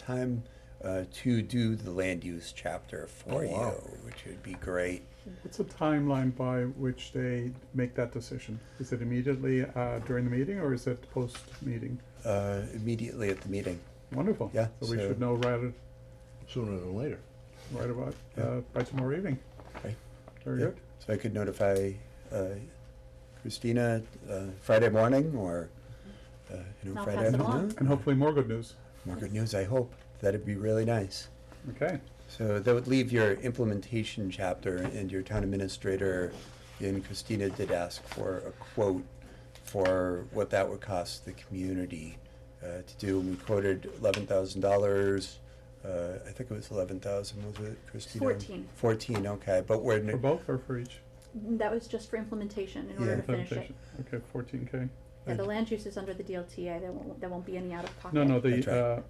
time uh, to do the land use chapter for Oh, wow. you, which would be great. What's the timeline by which they make that decision? Is it immediately uh, during the meeting or is it post-meeting? Uh, immediately at the meeting. Wonderful. Yeah, So we so- should know right, sooner than later. right about, Yeah. uh, by tomorrow evening. Right. Very Yeah. good. So I could notify uh, Christina uh, Friday morning or uh, you know, I'll Friday pass it along. afternoon. And hopefully more good news. More good news, I hope. That'd be really nice. Okay, So that would leave your implementation chapter and your town administrator, and Christina did ask for a quote for what that would cost the community uh, to do, and we quoted eleven thousand dollars. Uh, I think it was eleven thousand, was it, Christina? Fourteen. Fourteen, okay, but we're, for ne- both or for each? That was just for implementation in order Yeah. to finish it. Implementation. Okay, fourteen K. Yeah, the land use is under the DLTA, there won't, there won't be any out of pocket. No, no, That's the, right. uh,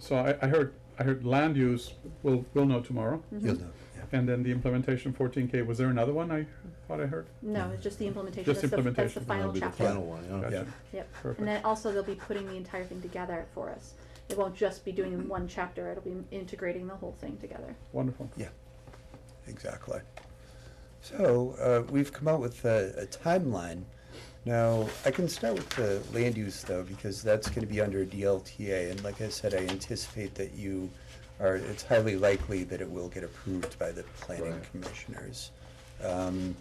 so I, I heard, I heard land use, we'll, we'll know tomorrow. Mm-hmm. you'll know, yeah. And then the implementation fourteen K, was there another one I thought I heard? No, it's just the implementation, Just that's the, that's the implementation, final That'll be the chapter. final one, Oh, yeah. Gotcha. Yep, Perfect. and then also they'll be putting the entire thing together for us. It won't just be doing one chapter, it'll be integrating the whole thing together. Wonderful. Yeah, exactly. So uh, we've come out with a, a timeline. Now, I can start with the land use though, because that's gonna be under DLTA, and like I said, I anticipate that you are, it's highly likely that it will get approved by the planning Right. commissioners. Um,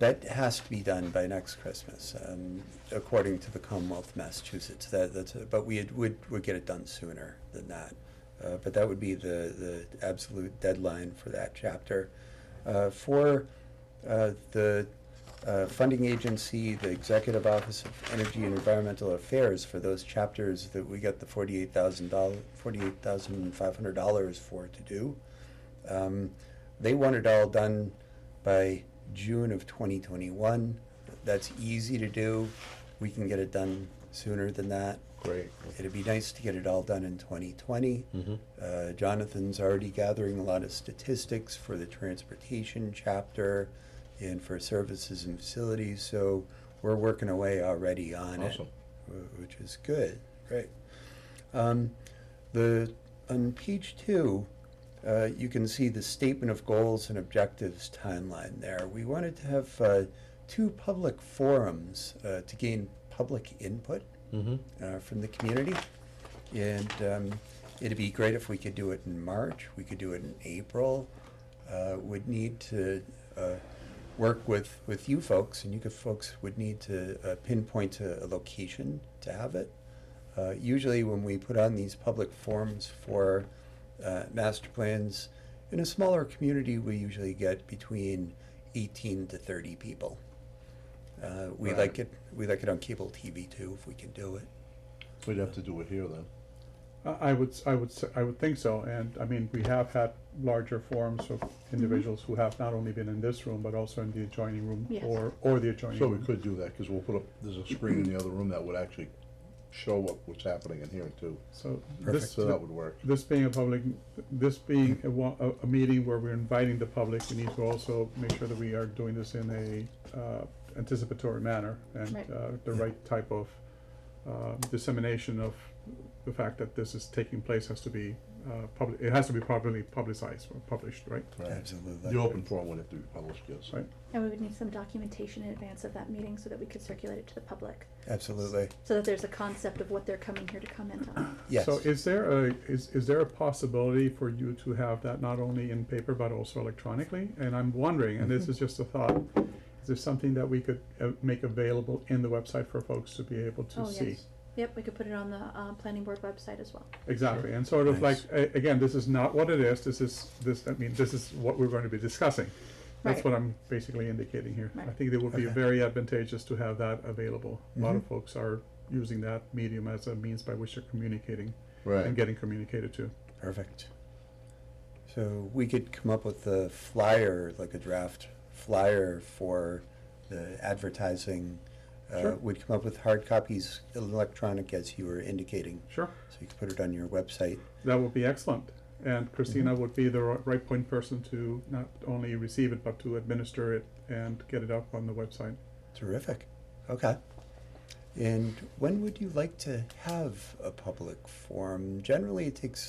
That has to be done by next Christmas, um, according to the Commonwealth of Massachusetts, that, that's, a- but we had- would, would get it done sooner than that. Uh, but that would be the, the absolute deadline for that chapter. Uh, for, uh, the, uh, funding agency, the Executive Office of Energy and Environmental Affairs, for those chapters that we got the forty-eight thousand dollars, forty-eight thousand five hundred dollars for to do. Um, they want it all done by June of 2021. That's easy to do. We can get it done sooner than that. Great. It'd be nice to get it all done in 2020. Mhm. Uh, Jonathan's already gathering a lot of statistics for the transportation chapter and for services and facilities, so we're working away already on it Awesome. wh- which is good, great. Um, the, on page two, uh, you can see the statement of goals and objectives timeline there. We wanted to have, uh, two public forums, uh, to gain public input, Mm-hmm. uh, from the community. And, um, it'd be great if we could do it in March, we could do it in April. Uh, would need to, uh, work with, with you folks, and you could, folks would need to uh, pinpoint a, a location to have it. Uh, usually when we put on these public forums for, uh, master plans, in a smaller community, we usually get between eighteen to thirty people. Uh, we Right. like it, we like it on cable TV too, if we can do it. We'd have to do it here then. I I would, s- I would, s- I would think so, and I mean, we have had larger forums of Mm-hmm. individuals who have not only been in this room, but also in the adjoining room Yes. or, or the adjoining So we room. could do that, because we'll put up, there's a screen in the other room that would actually show up what's happening in here too. So Perfect. this, So that would work. Mm-hmm. this being a public, this being a, wa- a, a meeting where we're inviting the public, we need to also make sure that we are doing this in a, uh, anticipatory manner and, Right. uh, the right type of, uh, dissemination of the fact that this is taking place has to be, uh, public, it has to be properly publicized or published, right? Absolutely. The open forum would have to be published, yes. Right. And we would need some documentation in advance of that meeting so that we could circulate it to the public, Absolutely, so that there's a concept of what they're coming here to comment on. yes. So is there a, is, is there a possibility for you to have that not only in paper but also electronically? And I'm wondering, and this Mm-hmm. is just a thought, is there something that we could uh, make available in the website for folks to be able to Oh, see? yes. Yep, we could put it on the, uh, planning board website as well. Exactly, and sort of like, Nice. a- again, this is not what it is, this is, this, I mean, this is what we're going to be discussing. That's Right. what I'm basically indicating here. I Right. think it would be Okay. Mm-hmm. very advantageous to have that available. A lot of folks are using that medium as a means by which they're communicating and Right. getting communicated to. Perfect. So we could come up with a flyer, like a draft flyer for the advertising. Uh, Sure. we'd come up with hard copies, electronic, as you were indicating, Sure. so you could put it on your website. That would be excellent. And Christina would be the ri- right point person to not only receive it, but to administer it and get it up on the website. Terrific. Okay. And when would you like to have a public forum? Generally, it takes